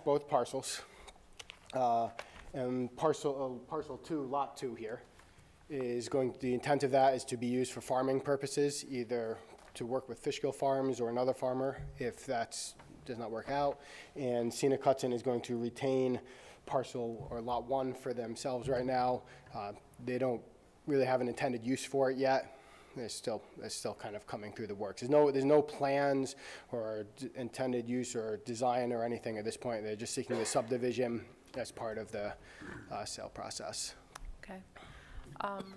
both parcels. Uh, And parcel, uh, parcel two, lot two here, is going, the intent of that is to be used for farming purposes, either to work with Fishkill Farms or another farmer, if that's, does not work out. And Scenic Hudson is going to retain parcel or lot one for themselves right now. Uh, They don't really have an intended use for it yet. It's still, it's still kind of coming through the works. There's no, there's no plans or d- intended use or design or anything at this point. They're just seeking the subdivision as part of the uh, sale process. Okay. Um,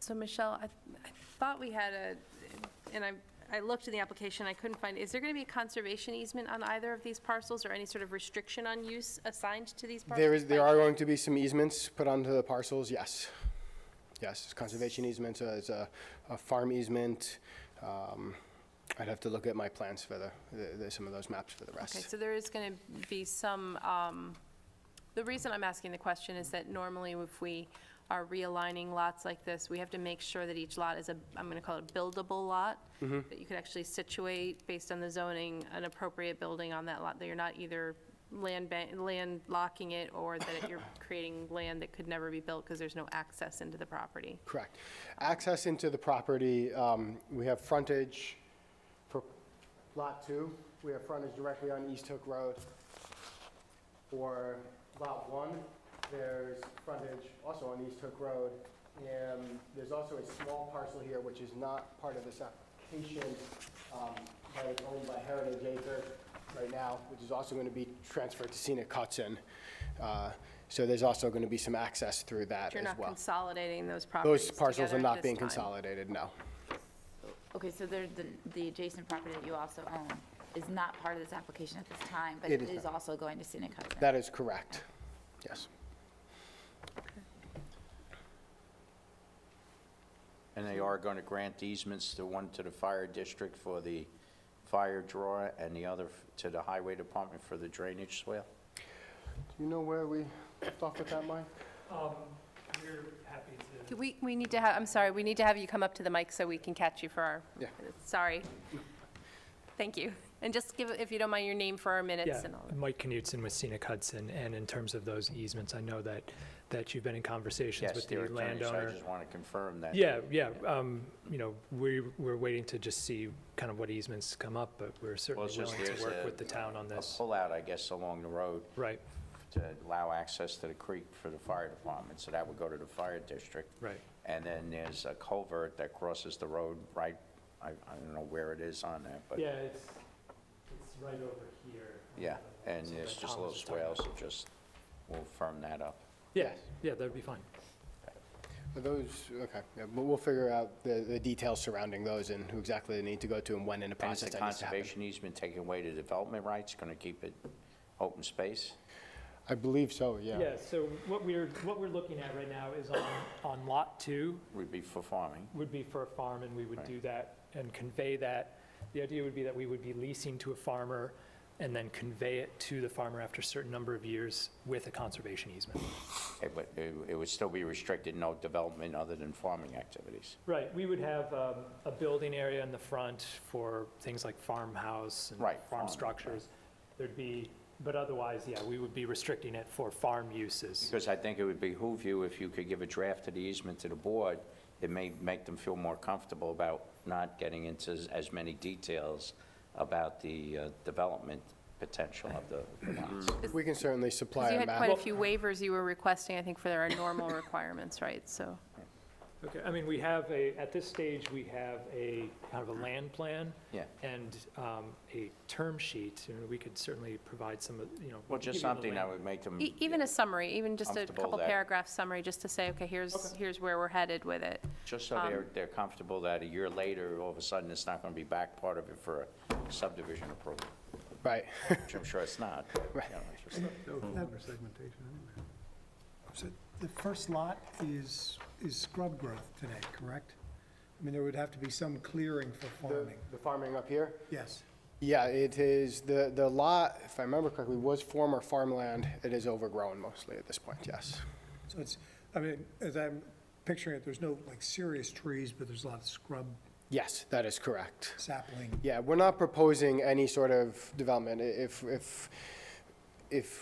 So Michelle, I I thought we had a, and I, I looked in the application, I couldn't find, is there going to be a conservation easement on either of these parcels or any sort of restriction on use assigned to these parcels? There is, there by- are going to be some easements put onto the parcels, yes. Yes, conservation easements, uh, there's a, a farm easement. um, I'd have to look at my plans for the, the- the, some of those maps for the Okay, rest. so there is going to be some, um, the reason I'm asking the question is that normally if we are realigning lots like this, we have to make sure that each lot is a, I'm going to call it a buildable lot, that you could actually situate, based on the zoning, an appropriate building on that lot, that you're not either land ban- land locking it or that you're creating land that could never be built because there's no access into the property. Correct. Access into the property, um, we have frontage for Lot 2, we have frontage directly on East Hook Road. For Lot 1, there's frontage also on East Hook Road, and there's also a small parcel here, which is not part of this application, um, but it's owned by Heritage Acre right now, which is also going to be transferred to Scenic Hudson. Uh, So there's also going to be some access through that You're as not well. consolidating those properties Those parcels together are at not this being time. consolidated, no. Okay, so there, the, the adjacent property that you also own is not part of this application at this time, but It it is is not. also going to scenic Hudson. That is correct. Yes. And they are going to grant easements, the one to the fire district for the fire draw and the other f- to the highway department for the drainage swale? Do you know where we left off with that, Mike? Um, We're happy to, We, we need to have, I'm sorry, we need to have you come up to the mic so we can catch you for our, Yeah. sorry. Thank you. And just give, if you don't mind, your name for our minutes yeah, and all that. Mike Knutson with Scenic Hudson, and in terms of those easements, I know that, that you've been in conversations Yes, with the their attorneys, I landowner. just want to confirm that. Yeah, yeah, um, you know, we, we're waiting to just see kind of what easements come up, but we're Well, certainly it's just willing to there's work a- with the town on a this. pullout, I guess, along the road Right, to allow access to the creek for the fire department, so that would go to the fire district. right. And then there's a culvert that crosses the road right, I, I don't know where it is on that, but, it's, it's right over here. yeah. And there's just little swales, so just, we'll firm that up. Yeah, yeah, that'd be fine. Are those, okay, yeah, but we'll figure out the, the details surrounding those and who exactly they need to go to and when in the And is process the that needs to happen. conservation easement taking away the development rights, going to keep it open space? I believe so, yeah. Yeah, so what we're, what we're looking at right now is on, on Lot 2, Would be for farming. would be for a farm, and we would Right. do that and convey that. The idea would be that we would be leasing to a farmer and then convey it to the farmer after a certain number of years with a conservation easement. It would, it it would still be restricted, no development other than farming activities. Right, we would have um, a building area in the front for things like farmhouse and Right, farm, farm right. structures. There'd be, but otherwise, yeah, we would be restricting it for farm uses. Because I think it would behoove you, if you could give a draft of the easement to the board, it may make them feel more comfortable about not getting into as- as many details about the uh, development potential of the lots. We can certainly supply Because you a had quite a map. few waivers you were requesting, I think, for our normal requirements, right? So, Okay, I mean, we have a, at this stage, we have a kind of a land plan. Yeah. And um, a term sheet, and we could certainly provide some, of you know. Well, just give you the something land- that would make them. e- even a summary, even just a Mm, Comfortable couple that- paragraph summary, just to say, okay, here's, here's where we're headed with it. Just so they're, they're comfortable that a year later, all of a sudden, it's not going to be back part of it for a subdivision approval, Right, which I'm sure it's not. but, you know, it's just- So the first lot is, is scrub growth today, correct? I mean, there would have to be some clearing for the farming, the farming up here. yes. Yeah, it is, the, the lot, if I remember correctly, was former farmland. It is overgrown mostly at this point, yes. So it's, I mean, as I'm picturing it, there's no like serious trees, but there's a lot of scrub Yes, that is correct. sapling. Yeah, we're not proposing any sort of development. I- If, if, if